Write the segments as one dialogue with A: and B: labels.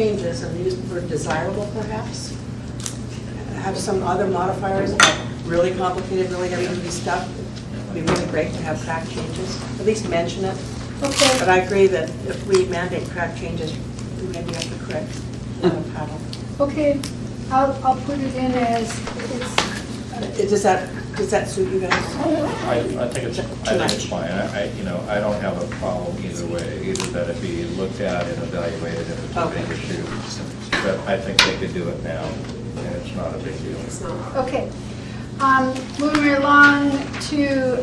A: changes and use the word desirable perhaps? Have some other modifiers, uh, really complicated, really heavy-duty stuff. It'd be really great to have crack changes, at least mention it. But
B: Okay,
A: I agree that if we mandate crack changes, we maybe have to correct a lot of paddle.
B: okay, I'll, I'll put it in as, it's,
A: Uh, Does that, does that suit you guys?
C: I, I think it's, I think it's fine, I, I, you know, I don't have a problem either way, either that it be looked at and evaluated if it's a
A: Okay.
C: big issue. But I think they could do it now, and it's not a big deal.
B: okay. Um, Moving right along to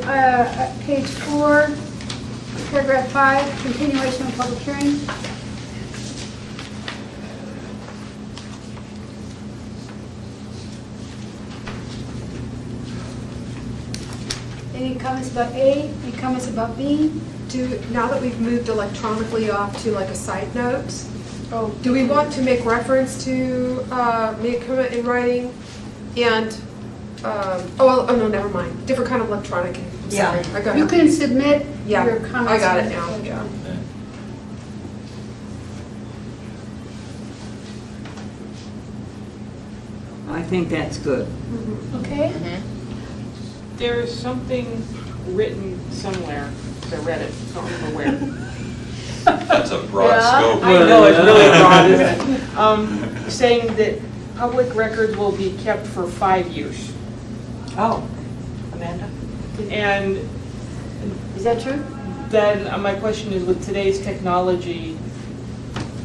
B: uh, page four, paragraph five, continuation of public hearing. Any comments about A? Any comments about B?
D: Do, now that we've moved electronically off to like a side note,
B: Oh,
D: do we want to make reference to, uh, make a comment in writing? And, um, oh, well, oh, no, never mind, different kind of electronic, I'm sorry, I got
B: You
D: it.
B: can submit
D: Yeah,
B: your comments.
D: I got
B: on
D: it now,
B: the-
D: yeah.
E: I think that's good.
B: Okay,
F: There is something written somewhere, I read it, don't remember where.
G: That's a broad scope.
F: I know, it's really broad, isn't it? Um, Saying that public records will be kept for five years.
A: Oh, Amanda?
F: And
A: Is that true?
F: then uh, my question is, with today's technology,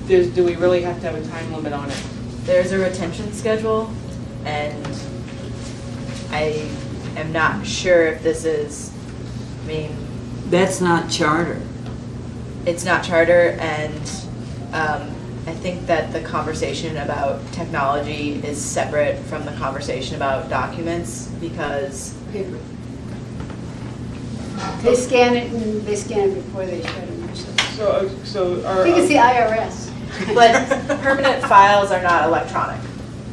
F: there's, do we really have to have a time limit on it?
H: There's a retention schedule, and I am not sure if this is, I mean,
E: That's not charter.
H: it's not charter, and um, I think that the conversation about technology is separate from the conversation about documents, because,
A: Paper.
B: they scan it and they scan it before they shut them or something.
F: So, uh, so
B: I
F: are.
B: think it's the IRS.
H: but permanent files are not electronic.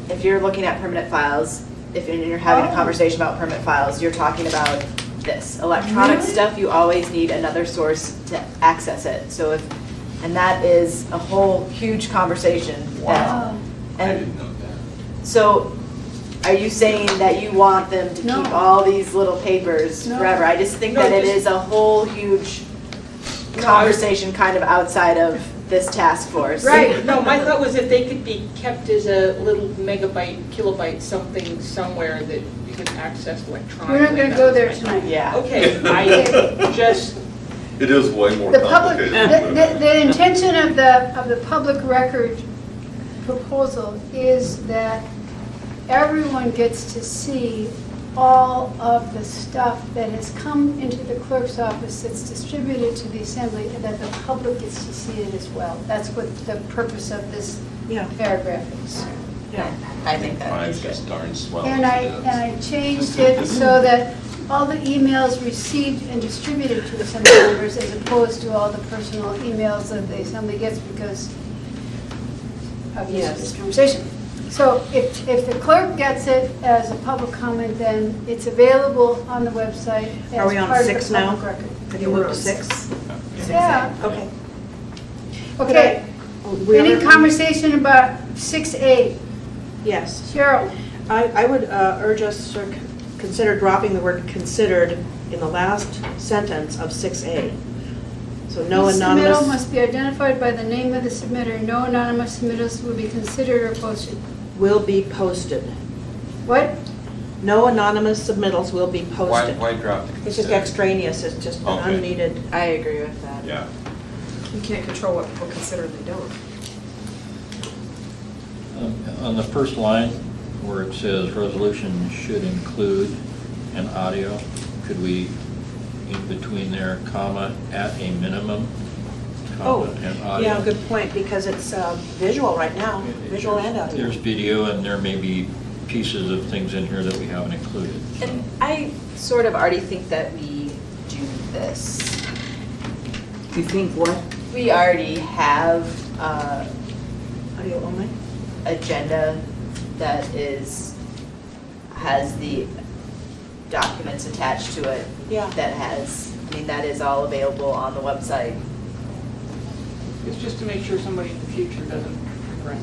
H: If you're looking at permanent files, if you're you're having
B: Oh.
H: a conversation about permanent files, you're talking about this. Electronic stuff, you always need another source to access it. So if, and that is a whole huge conversation. that-
B: Oh,
G: I
H: And
G: didn't know that.
H: so, are you saying that you want them to
B: No.
H: keep all these little papers
B: No.
H: forever? I just think
F: No,
H: that it
F: just-
H: is a whole huge
F: No, I-
H: conversation kind of outside of this task force.
F: Right, uh, no, my thought was that they could be kept as a little megabyte, kilobyte, something somewhere that you can access electronically.
B: We're not going to
F: That
B: go
F: was
B: there
F: my thought.
B: tonight.
H: Yeah.
F: Okay, I just,
G: It is way more
B: The
G: complicated.
B: public, the,
G: than
B: the-
G: what
B: the intention of the, of the public record proposal is that everyone gets to see all of the stuff that has come into the clerk's office that's distributed to the assembly and that the public gets to see it as well. That's what the purpose of this
A: Yeah.
B: paragraph is.
H: I think that
G: Mine's
H: is good.
G: just darn swell.
B: And
G: as
B: I,
G: it is.
B: and I changed it so that all the emails received and distributed to assembly members as opposed to all the personal emails that the assembly gets because of
A: Yes.
B: this conversation. So if, if the clerk gets it as a public comment, then it's available on the website
A: Are we
B: as
A: on
B: part of
A: six
B: the
A: now?
B: public record.
A: Have you moved to six?
B: Yeah,
A: Okay.
B: okay. Any conversation about 6A?
A: Yes.
B: Cheryl?
A: I, I would uh, urge us to consider dropping the word considered in the last sentence of 6A. So no
B: Each Submittal
A: anonymous
B: must be identified by the name of the submitter. No anonymous submittals will be considered or posted.
A: will be posted.
B: What?
A: No anonymous submittals will be
G: Why,
A: posted.
G: why drop the?
A: It's just extraneous, it's just an
G: Okay.
A: unneeded,
H: I agree with that.
G: Yeah.
D: You can't control what people consider and they don't.
I: Um, On the first line, where it says resolution should include an audio, could we, in between there, comma, at a minimum,
A: oh,
I: comma, and
A: yeah,
I: audio?
A: good point, because it's uh, visual right now, visual and audio.
I: There's video, and there may be pieces of things in here that we haven't included. so-
H: And I sort of already think that we do this.
E: You think what?
H: We already have uh
A: Audio only?
H: agenda that is, has the documents attached to it.
A: Yeah.
H: That has, I mean, that is all available on the website.
F: it's just to make sure somebody in the future doesn't right.